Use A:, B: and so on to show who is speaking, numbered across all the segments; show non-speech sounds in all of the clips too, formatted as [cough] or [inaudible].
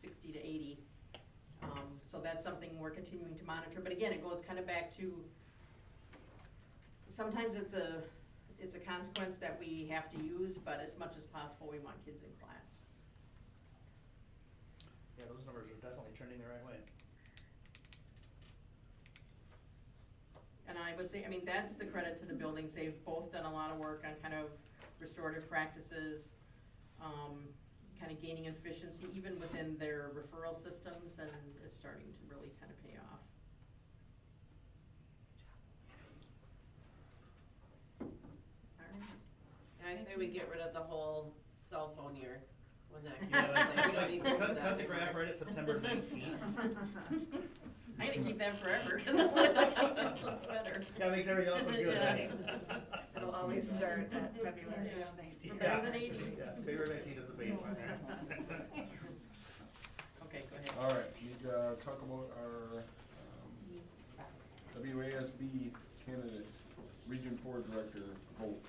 A: sixty to eighty. Um, so that's something we're continuing to monitor, but again, it goes kind of back to, sometimes it's a, it's a consequence that we have to use, but as much as possible, we want kids in class.
B: Yeah, those numbers are definitely trending the right way.
A: And I would say, I mean, that's the credit to the buildings, they've both done a lot of work on kind of restorative practices, um, kind of gaining efficiency even within their referral systems, and it's starting to really kind of pay off. All right.
C: I say we get rid of the whole cell phone year when that
B: Yeah,
C: comes,
B: [laughs]
C: like, we don't
B: like,
C: need
B: cut-
C: this for
B: Cut
C: that.
B: the graph right
A: [laughs]
B: at September nineteenth.
A: I'm gonna keep that forever, [laughs] 'cause it looks better.
B: That makes everything else look good, right?
D: [laughs] It'll always start at February
A: Yeah.
D: nineteenth.
B: Yeah,
A: Better than 80.
B: yeah, February nineteenth is the
A: [laughs]
B: baseline [laughs] there.
A: Okay, go ahead.
E: All right, need to talk about our um, WASB candidate, Region Four Director vote.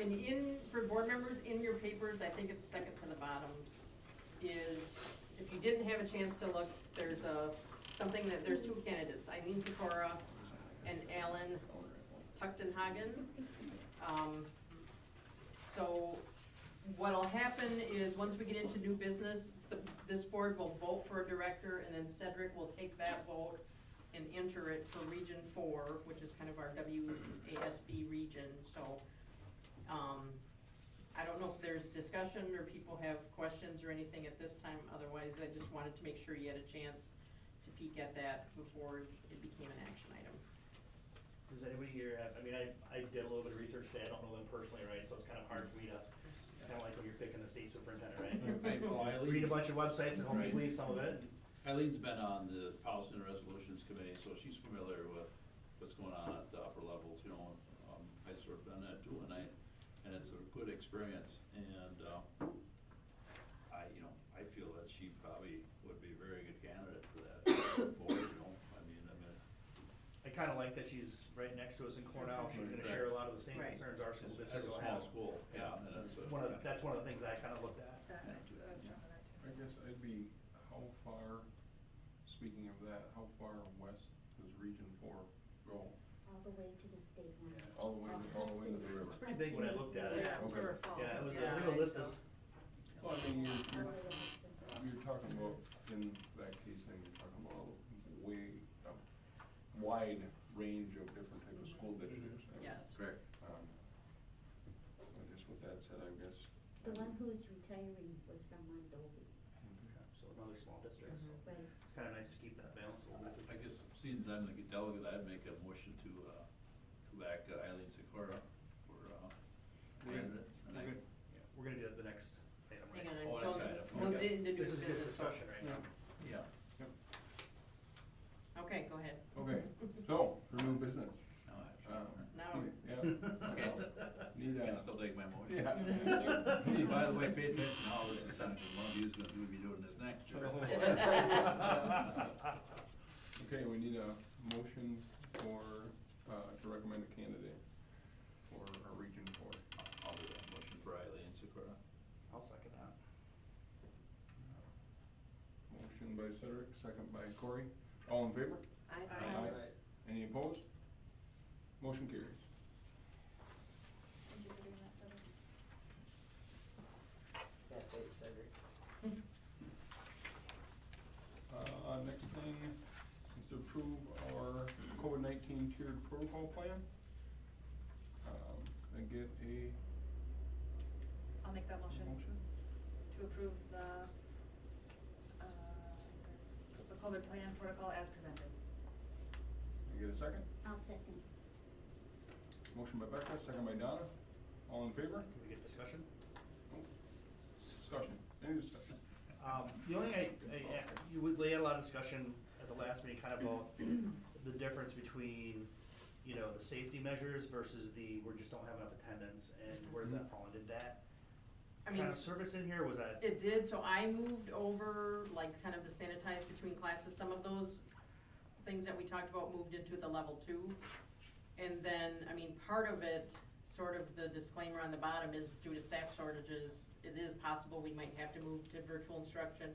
A: And in, for board members, in your papers, I think it's second to the bottom, is, if you didn't have a chance to look, there's a, something that, there's two candidates, Eileen Sikora and Alan Tuchtenhagen. Um, so what'll happen is, once we get into new business, the, this board will vote for a director, and then Cedric will take that vote and enter it for Region Four, which is kind of our WASB region, so, um, I don't know if there's discussion or people have questions or anything at this time, otherwise I just wanted to make sure you had a chance to peek at that before it became an action item.
B: Does anybody here have, I mean, I, I did a little bit of research today, I don't know them personally, right, so it's kind of hard for me to, it's kind of like when you're picking the state superintendent, right?
F: [laughs]
B: Read a bunch of websites and hopefully
F: Right.
B: leave some of it.
F: Eileen's been on the Policy and Resolutions Committee, so she's familiar with what's going on at the upper levels, you know. Um, I served on that too, and I, and it's a good experience, and, uh, I, you know, I feel that she probably would be a very good candidate for that [coughs] board, you know, I mean, I mean,
B: I kind of like that she's right next to us in Cornell, she's gonna share a lot of the same
A: Right.
B: concerns our school
F: it's, it's
B: district
F: a
B: will
F: small
B: have.
F: school, yeah, and it's a.
B: One of, the- that's one of the things I kind of looked at.
E: I guess I'd be, how far, speaking of that, how far west does Region Four go?
G: All the way to the state line.
B: Yeah.
E: All the way to- all the way to the river.
B: Too big when I looked at it.
C: Yeah, it's
E: Okay.
C: where it falls.
B: Yeah, it was,
A: Yeah,
B: I think the list
A: so-
B: is
E: Well, I mean, you're,
G: All
E: you're,
G: the way to the-
E: you're talking about, in that case, then you're talking about way, a wide range of different type of school districts. I mean,
A: Yes.
F: Correct.
E: um, I guess with that said, I guess.
G: The one who is retiring was from Mondovi,
B: So another small district,
A: Mm-hmm.
B: so
D: Mm-hmm.
G: right?
B: it's kind of nice to keep that balance a little
F: I
B: bit.
F: guess, since I'm the delegate, I'd make a motion to, uh, to back uh, Eileen Sikora for, uh,
B: We're gonna-
F: candidate. And I-
B: we're gonna- yeah, We're gonna do it the next item, right?
A: Hang on,
F: Oh,
A: I'm
F: that's
A: still,
F: right, okay.
A: we'll do the new
B: This is just
A: business.
B: discussion right now.
F: Yeah,
A: Okay, go ahead.
E: Okay, so, for new business,
F: no,
E: um,
F: actually,
A: Now-
B: [laughs]
E: yeah,
F: okay.
E: need
F: I
E: a,
F: can still take my
E: [laughs]
F: motion.
E: yeah.
F: Hey, By the way, pay [laughs] attention, to all this is done, because one of you's gonna do- be doing this
B: [laughs]
F: next year.
E: Okay, we need a motion for, uh, to recommend a candidate for our region four.
F: I'll do that motion for Eileen Sikora.
B: I'll second that.
E: Motion by Cedric, second by Corey. All in favor?
A: [laughs]
E: Uh,
A: I, um,
E: Any opposed? Motion carries.
D: Thank you for doing that, Cedric.
E: Uh, next thing is to approve our COVID nineteen tiered protocol plan. Um, and get a
D: I'll make that motion
E: motion.
D: to approve the, uh, the COVID plan protocol as presented.
E: And get a second.
G: I'll second.
E: Motion by Becca, second by Donna. All in favor?
B: Can we get discussion?
E: Discussion, any discussion?
B: Um, the only, I, I, you would, lay had a lot of discussion at the last meeting, kind of about
A: [coughs]
B: the difference between, you know, the safety measures versus the, we just don't have enough attendance, and where does that fall, and did that
A: I mean,
B: kind of surface in here, was that?
A: It did, so I moved over, like, kind of the sanitized between classes, some of those things that we talked about moved into the level two. And then, I mean, part of it, sort of the disclaimer on the bottom is due to staff shortages, it is possible we might have to move to virtual instruction.